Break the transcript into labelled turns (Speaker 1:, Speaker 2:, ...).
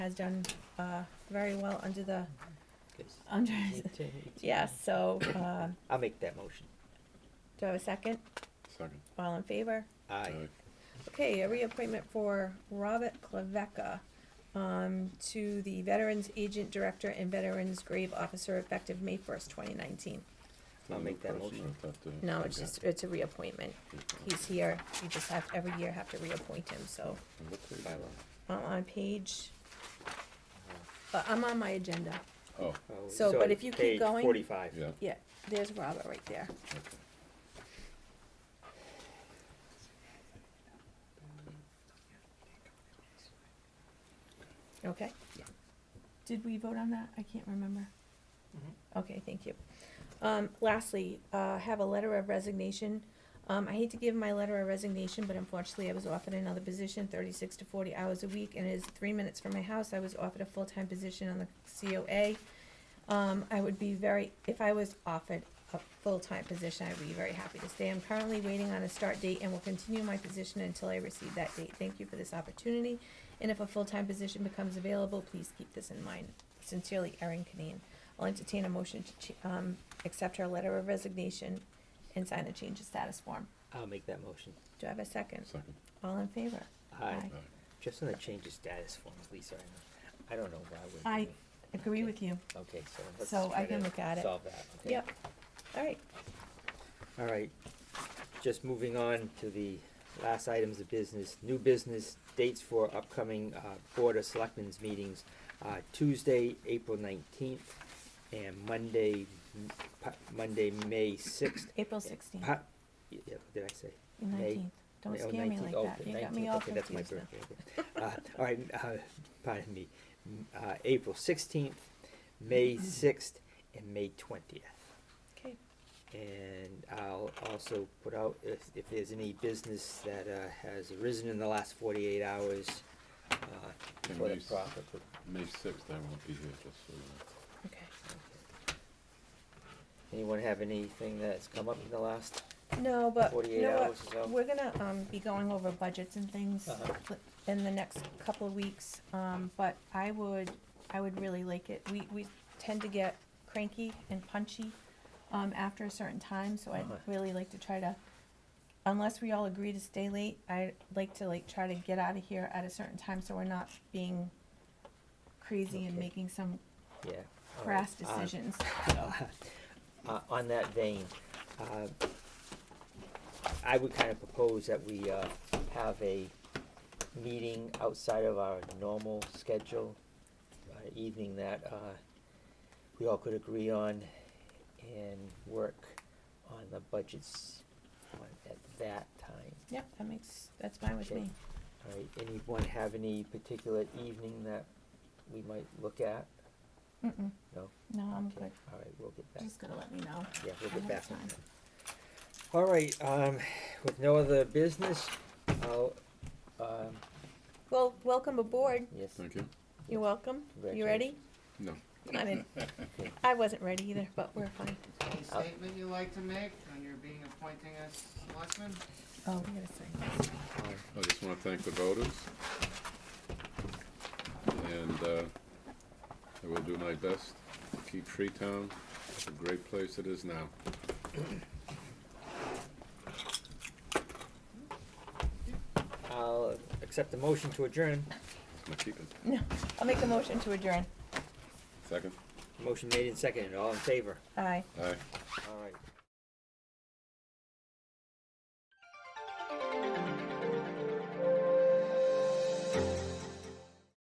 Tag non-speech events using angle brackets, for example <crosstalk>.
Speaker 1: has done uh, very well under the,
Speaker 2: Because
Speaker 1: under,
Speaker 2: you did.
Speaker 1: yes, so uh,
Speaker 2: I'll make that motion.
Speaker 1: do I have a second?
Speaker 3: Second.
Speaker 1: All in favor?
Speaker 2: Aye.
Speaker 1: Okay, a reappointment for Robert Klavecka um, to the Veterans Agent Director and Veterans Grave Officer effective May first, twenty nineteen.
Speaker 2: I'll make that motion.
Speaker 1: No, it's just, it's a reappointment. He's here, you just have, every year have to reappoint him, so
Speaker 2: Bylaw.
Speaker 1: I'm on page, uh, I'm on my agenda.
Speaker 3: Oh,
Speaker 2: Oh,
Speaker 1: So,
Speaker 2: it's
Speaker 1: but
Speaker 2: on
Speaker 1: if you keep
Speaker 2: page
Speaker 1: going-
Speaker 2: Forty-five.
Speaker 3: yeah,
Speaker 1: Yeah, there's Robert right there.
Speaker 3: okay.
Speaker 1: Okay.
Speaker 3: Yeah.
Speaker 1: Did we vote on that? I can't remember. Okay, thank you. Um, lastly, uh, have a letter of resignation. Um, I hate to give my letter of resignation, but unfortunately I was offered another position, thirty-six to forty hours a week, and it is three minutes from my house. I was offered a full-time position on the COA. Um, I would be very, if I was offered a full-time position, I'd be very happy to stay. I'm currently waiting on a start date and will continue my position until I receive that date. Thank you for this opportunity. And if a full-time position becomes available, please keep this in mind. Sincerely, Erin Canine. I'll entertain a motion to, ch- um, accept her letter of resignation and sign a change of status form.
Speaker 2: I'll make that motion.
Speaker 1: Do I have a second?
Speaker 3: Second.
Speaker 1: All in favor?
Speaker 2: Aye.
Speaker 1: Aye.
Speaker 2: Just on the change of status forms, Lisa, I know, I don't know why we're.
Speaker 1: I
Speaker 2: doing-
Speaker 1: agree with you.
Speaker 2: Okay, so let's.
Speaker 1: So I
Speaker 2: try
Speaker 1: can
Speaker 2: to
Speaker 1: look at it.
Speaker 2: Solve that, okay?
Speaker 1: Yep. All right.
Speaker 2: All right, just moving on to the last items of business, new business, dates for upcoming, uh, Board of Selectmen's meetings, uh, Tuesday, April nineteenth, and Monday, m- pa- Monday, May sixth.
Speaker 1: April sixteenth,
Speaker 2: Pa- yeah, what did I say? May-
Speaker 1: nineteenth. Don't
Speaker 2: Oh,
Speaker 1: scare me
Speaker 2: 19th.
Speaker 1: like
Speaker 2: Oh,
Speaker 1: that. You got me
Speaker 2: 19th.
Speaker 1: all
Speaker 2: Okay, that's my
Speaker 1: confused now.
Speaker 2: birthday. Uh, all right, uh, pardon me, M- uh, April sixteenth, May
Speaker 1: Mm-hmm.
Speaker 2: sixth, and May twentieth.
Speaker 1: Okay,
Speaker 2: And I'll also put out if, if there's any business that, uh, has arisen in the last forty-eight hours, uh,
Speaker 3: Can
Speaker 2: for the
Speaker 3: we s-
Speaker 2: profit.
Speaker 3: May sixth, I won't be here, just so you know.
Speaker 1: okay.
Speaker 2: Anyone have anything that's come up in the last?
Speaker 1: No, but you
Speaker 2: 48
Speaker 1: know
Speaker 2: hours or
Speaker 1: what?
Speaker 2: so.
Speaker 1: We're gonna, um, be going over budgets and things
Speaker 2: Uh-huh.
Speaker 1: li- in the next couple of weeks. Um, but I would, I would really like it. We, we tend to get cranky and punchy, um, after a certain time, so I'd
Speaker 2: Uh-huh.
Speaker 1: really like to try to, unless we all agree to stay late, I'd like to like try to get out of here at a certain time, so we're not being crazy and
Speaker 2: Okay.
Speaker 1: making some
Speaker 2: Yeah. all right,
Speaker 1: crass
Speaker 2: uh,
Speaker 1: decisions.
Speaker 2: <laughs> Uh, on that vein, uh, I would kind of propose that we, uh, have a meeting outside of our normal schedule, uh, evening that, uh, we all could agree on and work on the budgets on, at that time.
Speaker 1: Yep, that makes, that's fine with
Speaker 2: Okay.
Speaker 1: me.
Speaker 2: All right, anyone have any particular evening that we might look at?
Speaker 1: Mm-mm,
Speaker 2: No?
Speaker 1: no, I'm
Speaker 2: Okay,
Speaker 1: good.
Speaker 2: All right, we'll get back.
Speaker 1: Um, Just gonna let me know.
Speaker 2: Yeah, we'll
Speaker 1: I
Speaker 2: get
Speaker 1: have
Speaker 2: back on
Speaker 1: time.
Speaker 2: that. All right, um, with no other business, I'll, um,
Speaker 1: Well, welcome aboard.
Speaker 2: yes,
Speaker 3: Thank you.
Speaker 1: You're welcome. You ready?
Speaker 3: No. <laughs>
Speaker 1: I mean, I wasn't ready either, but we're fine.
Speaker 4: Any
Speaker 2: Uh,
Speaker 4: statement you like to make when you're being appointing as selectman?
Speaker 1: Oh, we gotta sign this.
Speaker 2: um,
Speaker 3: I just wanna thank the voters. And, uh, I will do my best to keep Freetown a great place it is now.
Speaker 2: I'll accept the motion to adjourn.
Speaker 3: That's my keeping.
Speaker 1: No, <laughs> I'll make a motion to adjourn.
Speaker 3: Second?
Speaker 2: Motion made and seconded, all in favor?
Speaker 1: Aye.
Speaker 3: Aye.
Speaker 2: All right.